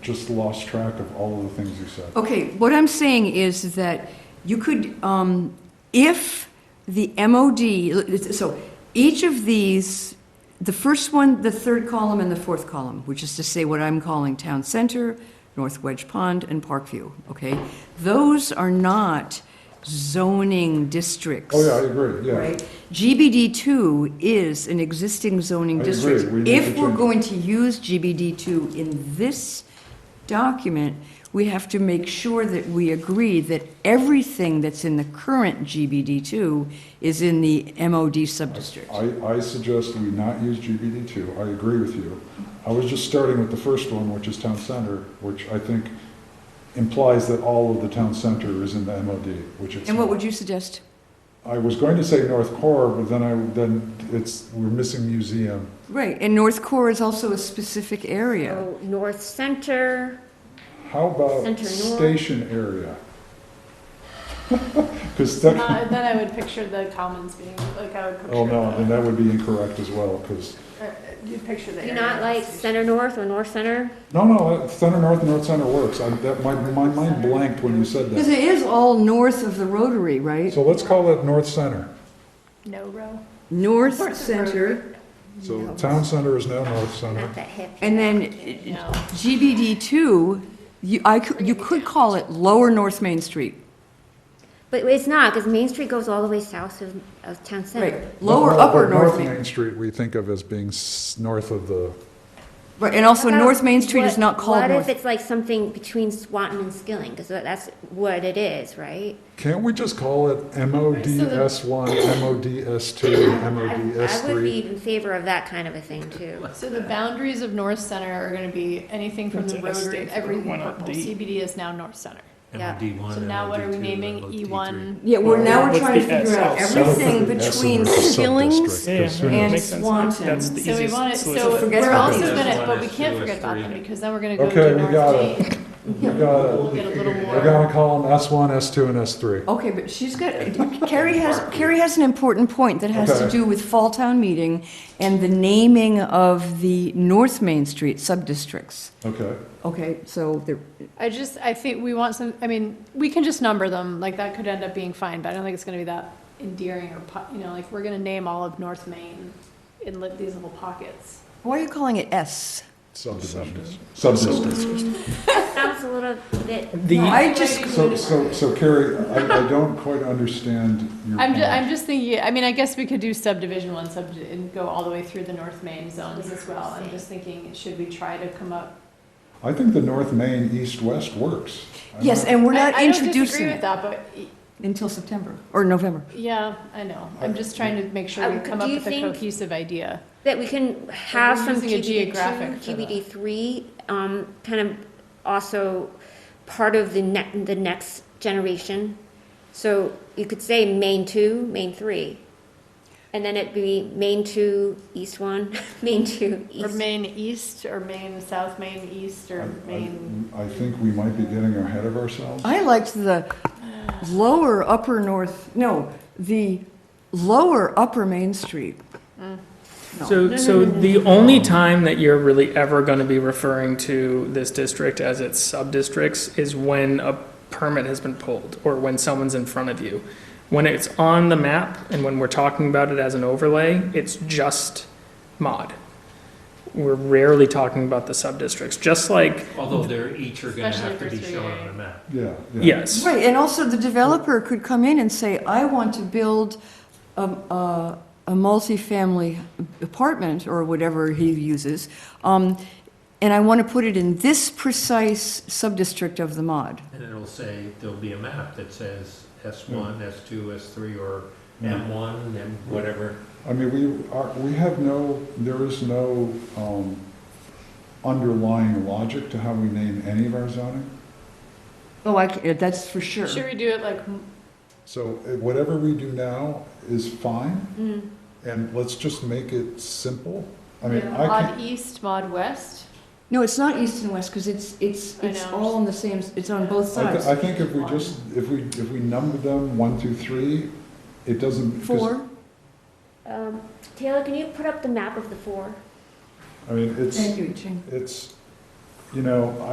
just lost track of all of the things you said. Okay, what I'm saying is that you could, um, if the MOD, so each of these, the first one, the third column and the fourth column, which is to say what I'm calling Town Center, North Wedge Pond, and Parkview, okay? Those are not zoning districts. Oh, yeah, I agree, yeah. Right? GBD two is an existing zoning I agree. district. We need If to we're change it. going to use GBD two in this document, we have to make sure that we agree that everything that's in the current GBD two is in the MOD subdistrict. I, I suggest we not use GBD two, I agree with you. I was just starting with the first one, which is town center, which I think implies that all of the town center is in the MOD, which it's And what not. would you suggest? I was going to say North Core, but then I, then it's, we're missing museum. Right, and North Core is also a specific Oh, area. So Oh, North Center, How about Center North. station area? Because Uh, then I would picture the commons being, like, I would picture. Oh, no, the- then that would be incorrect as well, because, uh, You'd picture the do you area. not like Center North or North Center? no, no, Center North and North Center works. I, that, my, my mind blanked when you said Because that. it is all north of the Rotary, right? So let's call it North Center. No row. North North of Center, So Town Center is now North Center. Not that hippie. and then No. GBD two, you, I, could- you could call it Lower North Main Street. But it's not, because Main Street goes all the way south of, of Town Right, Center. lower, No, upper but North Main. Main Street, we think of as being s- north of the, Right, and also How about North Main Street is what- not called What if North. it's like something between Swanton and Skilling, because that's what it is, right? can't we just call it MODS one, MODS two, MODS I would be three? in favor of that kind of a thing, too. So the boundaries of North Center are gonna be anything from the That's a rotary, state for everything one up purple. D. CBD is now North Center. Yeah. MOD one. So now what are we MOD2, naming? E MOD3. E1? Yeah, we're now we're What's trying to the figure out S? everything South of the S between is a Skilling's sub-district. As soon as- and Makes sense. Swanton. That's the So we easiest want to, solution. so Forget we're about also these. gonna, One but we is can't two, forget is about them three. because then we're gonna go Okay, to we North got it. Date. We got We'll it. get a little We're more. gonna call them S one, S two, and S three. Okay, but she's got, Carrie has, Carrie has an important point that has to Okay. do with Fall Town Meeting and the naming of the North Main Street sub-districts. Okay, Okay, so there, I just, I think we want some, I mean, we can just number them, like that could end up being fine, but I don't think it's gonna be that endearing or, po- you know, like, we're gonna name all of North Main in li- these little pockets. why are you calling it S? subdivisions, subdistricts. Sounds a little bit, The, I just, So, so, so Carrie, I, I don't quite understand your I'm, ju- I'm point. just thinking, I mean, I guess we could do subdivision one, sub, and go all the way through the North Main zones as well. I'm just thinking, should we try to come up? I think the North Main, East-West works. I'm yes, not- and we're not I- introducing I it don't disagree with that, until September, or November. but, yeah, I know. I'm just trying to make sure Uh, we come do up you with a think- cohesive idea. that we can have we're some using a GBD geographic for two, GBD three, um, kind of also part of the ne- the next generation. So you could say main two, main three, and then it'd be main two, east one, main two, Or east. Main East, or Main South, Main East, I- or Main, I I think we might be getting ahead of ourselves. I liked the lower upper north, no, the lower upper Main Street. No. so, so the only time that you're really ever gonna be referring to this district as its sub-districts is when a permit has been pulled, or when someone's in front of you. When it's on the map, and when we're talking about it as an overlay, it's just mod. We're rarely talking about the sub-districts, just like, Although they're each are gonna Especially have to for be three shown A. on a map. Yeah. yes. Right, and also the developer could come in and say, I want to build a, a, a multifamily apartment, or whatever he uses, um, and I want to put it in this precise sub-district of the mod. And it'll say, there'll be a map that says S one, S two, S three, or Yeah. M one, M whatever. I mean, we are, we have no, there is no, um, underlying logic to how we name any of our zoning. Oh, I, c- that's for sure. should we do it like, So eh, whatever we do now is fine, Mm. and let's just make it simple. I mean, I Mod can, East, Mod West? No, it's not east and west, because it's, it's, I it's know. all on the same, s- it's on both I, sides. thi- I think if we just, if we, if we number them one through three, it doesn't. 'cause- Four, Um, Taylor, can you put up the map of the four? I mean, it's, thank you, Jane. it's, you know, I.